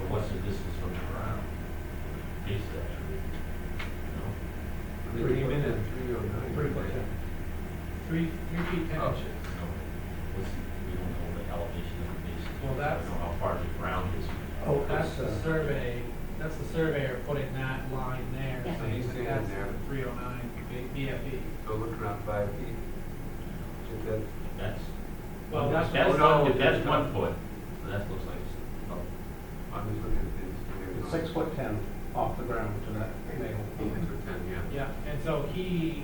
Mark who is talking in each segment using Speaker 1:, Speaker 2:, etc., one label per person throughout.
Speaker 1: distance from the ground. Base actually. No?
Speaker 2: They came in at three oh nine.
Speaker 3: Pretty much, yeah. Three, three feet ten inches.
Speaker 1: No. What's, we don't know the elevation of the base.
Speaker 3: Well, that's-
Speaker 1: I don't know how far the ground is.
Speaker 3: Oh, that's the
Speaker 2: uh,
Speaker 3: survey, that's the surveyor putting that line there,
Speaker 4: Yeah.
Speaker 3: so
Speaker 2: He's
Speaker 3: he's,
Speaker 2: saying
Speaker 3: that's
Speaker 2: there.
Speaker 3: three oh nine E." BFE.
Speaker 2: So look around five feet. Get that,
Speaker 1: That's,
Speaker 3: Well, that's.
Speaker 1: that's
Speaker 2: Oh, no,
Speaker 1: one, that's
Speaker 2: that's
Speaker 1: one
Speaker 2: not-
Speaker 1: foot. So that looks like, oh, it's about
Speaker 2: I'm just looking at
Speaker 5: It's
Speaker 2: this.
Speaker 5: six foot ten off the ground to that nail.
Speaker 2: Six foot ten, yeah.
Speaker 3: Yeah, and so he,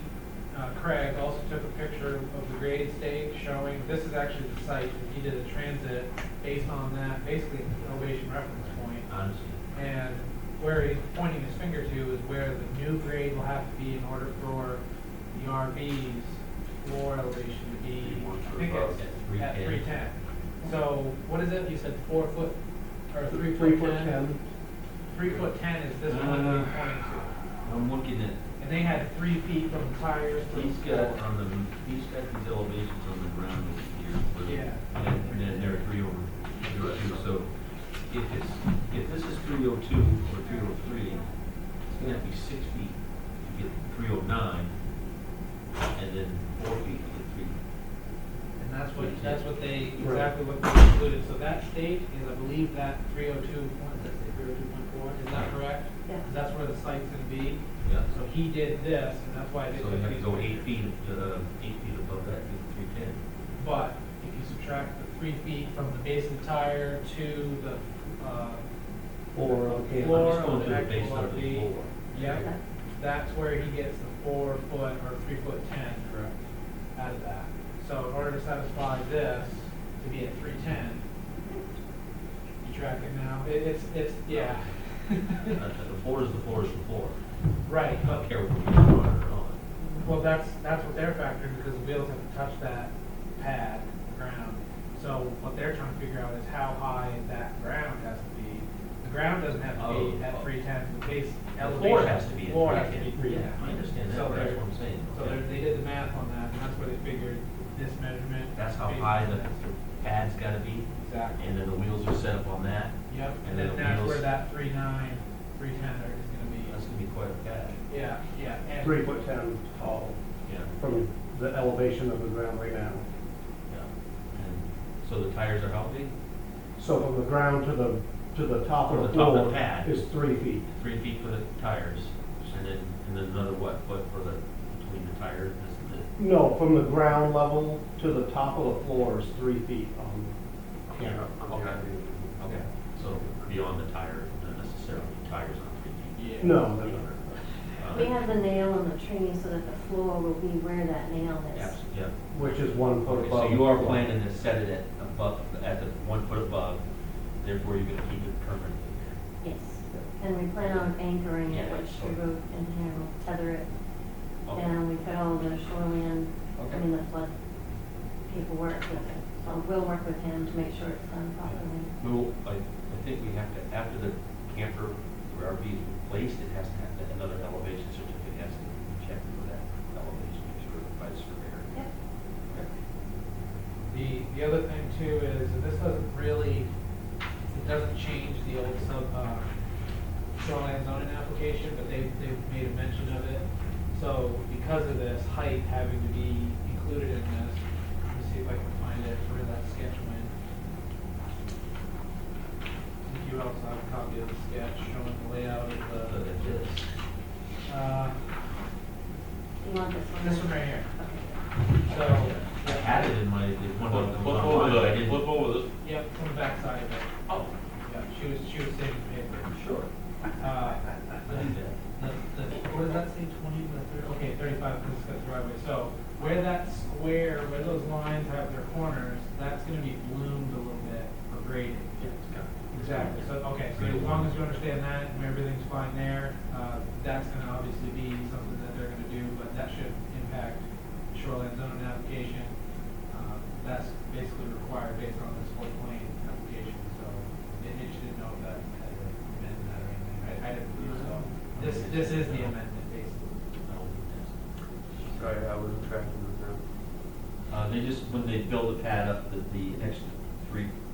Speaker 3: uh, Craig also took a picture of the grade stake showing, this is actually the site, and he did a transit based on that, basically an elevation reference point.
Speaker 1: honestly.
Speaker 3: And where he's pointing his finger to is where the new grade will have to be in order for the RV's floor elevation to be, I think it's at
Speaker 1: At
Speaker 3: three ten. So what is it, you said four foot, or three
Speaker 5: Three
Speaker 3: foot
Speaker 5: foot
Speaker 3: ten?
Speaker 5: ten, Uh.
Speaker 3: Three foot ten is this one that he's pointing to.
Speaker 1: I'm looking at
Speaker 3: And they had three feet from the tires to the
Speaker 1: He's got
Speaker 3: floor.
Speaker 1: on the, he's got these elevations on the ground over here.
Speaker 3: Yeah.
Speaker 1: And then there are three over, zero two, so if it's, if this is three oh two or three oh three, it's gonna have to be six feet to get three oh nine, and then four feet to get three.
Speaker 3: And that's what, that's what they,
Speaker 5: Right.
Speaker 3: exactly what they included. So that stake is, I believe, that three oh two point, that's it, three oh two point four, is that correct?
Speaker 4: Yeah.
Speaker 3: 'Cause that's where the site's gonna be.
Speaker 1: Yeah.
Speaker 3: So he did this, and that's why I did.
Speaker 1: So you have to go eight feet, uh, eight feet above that, three ten.
Speaker 3: But if you subtract the three feet from the base of the tire to the, uh,
Speaker 5: or, okay,
Speaker 3: Floor.
Speaker 1: I'm just going
Speaker 3: on
Speaker 1: through the
Speaker 3: the
Speaker 1: base
Speaker 3: actual
Speaker 1: of the
Speaker 3: RV.
Speaker 1: floor.
Speaker 3: yeah, that's where he gets the four foot or three foot ten
Speaker 5: correct.
Speaker 3: out of that. So in order to satisfy this, to be at three ten, you track it now, it, it's, it's, yeah.
Speaker 1: Uh, The floor is the floor is the floor.
Speaker 3: Right,
Speaker 1: I
Speaker 3: but,
Speaker 1: don't care what we do on or on.
Speaker 3: well, that's, that's what they're factoring, because the wheels haven't touched that pad, ground. So what they're trying to figure out is how high that ground has to be. The ground doesn't have to be
Speaker 1: Oh,
Speaker 3: at
Speaker 1: oh.
Speaker 3: three ten, the base
Speaker 1: The
Speaker 3: elevation.
Speaker 1: floor has to be at
Speaker 3: floor has to be
Speaker 1: 310.
Speaker 3: yeah.
Speaker 1: I understand that,
Speaker 3: So
Speaker 1: but that's
Speaker 3: they're-
Speaker 1: what I'm saying.
Speaker 3: So
Speaker 1: Okay.
Speaker 3: they're- they did the math on that, and that's where they figured this measurement.
Speaker 1: That's how
Speaker 3: based
Speaker 1: high
Speaker 3: on
Speaker 1: the
Speaker 3: that.
Speaker 1: the pad's gotta be,
Speaker 3: Exactly.
Speaker 1: and then the wheels are set up on that.
Speaker 3: Yep,
Speaker 1: And
Speaker 3: and
Speaker 1: then
Speaker 3: then
Speaker 1: the
Speaker 3: that's
Speaker 1: wheels-
Speaker 3: where that three nine, three ten there is gonna
Speaker 1: That's
Speaker 3: be.
Speaker 1: gonna be quite a pad.
Speaker 3: Yeah, yeah, and.
Speaker 5: Three foot ten tall
Speaker 1: Yeah.
Speaker 5: from the elevation of the ground right now.
Speaker 1: Yeah. And so the tires are how big?
Speaker 5: So from the ground to the, to the top
Speaker 1: From
Speaker 5: of
Speaker 1: the
Speaker 5: the
Speaker 1: top of the
Speaker 5: floor
Speaker 1: pad.
Speaker 5: is three feet.
Speaker 1: Three feet for the tires, and then, and then another what, foot for the, between the tires, is the,
Speaker 5: No, from the ground level to the top of the floor is three feet on camera.
Speaker 2: On the idea.
Speaker 1: okay. So beyond the tire, not necessarily tires on three feet.
Speaker 3: Yeah.
Speaker 5: No, no, no.
Speaker 1: Um,
Speaker 4: We have the nail on the tree so that the floor will be where that nail is.
Speaker 1: abs- Yeah.
Speaker 5: which is one foot
Speaker 1: Okay, so
Speaker 5: above.
Speaker 1: you are
Speaker 5: the floor.
Speaker 1: planning to set it at above, at the one foot above, therefore you're gonna keep it permanently there.
Speaker 4: Yes. And we plan on anchoring it,
Speaker 1: Yeah.
Speaker 4: which the rope and here will tether it
Speaker 1: Okay.
Speaker 4: down. We've got all the shoreline, I
Speaker 1: Okay.
Speaker 4: mean, the flood people work with it. So we'll work with him to make sure it's done properly.
Speaker 1: Well, I, I think we have to, after the camper or RV is replaced, it has to have that- another elevation certificate, has to be checked for that elevation, make sure by the surveyor.
Speaker 4: Yep.
Speaker 3: The, the other thing too is, that this doesn't really, it doesn't change the old sub, uh, shoreline zoning application, but they, they made a mention of it. So because of this height having to be included in this, let me see if I can find it, where that sketch went. I think you also have a copy of the sketch showing the layout of
Speaker 1: Uh, that is,
Speaker 3: the, uh,
Speaker 4: You want this one?
Speaker 3: this one right here.
Speaker 4: Okay.
Speaker 3: So,
Speaker 1: I had it in my, the one
Speaker 6: Flip
Speaker 1: on the
Speaker 6: flip
Speaker 1: one
Speaker 6: over
Speaker 1: online, I
Speaker 6: the,
Speaker 1: didn't.
Speaker 6: flip over the,
Speaker 3: yep, from the backside of it.
Speaker 1: Oh,
Speaker 3: Yeah, she was, she was saving paper.
Speaker 1: sure.
Speaker 3: Uh,
Speaker 1: I did that.
Speaker 3: the, the, what does that say, twenty by thirty? Okay, thirty-five, because it's got the driveway. So where that square, where those lines have their corners, that's gonna be bloomed a little bit or graded. Exactly, so, okay, so as long as you understand that and everything's fine there, uh, that's gonna obviously be something that they're gonna do, but that should impact shoreline zoning application. Uh, That's basically required based on this whole plan application, so it it should know that, that amendment or anything, I, I didn't believe so. This, this is the amendment, basically.
Speaker 1: I don't think
Speaker 2: Sorry, I wasn't tracking with that.
Speaker 1: that's- Uh, they just, when they build the pad up, the, the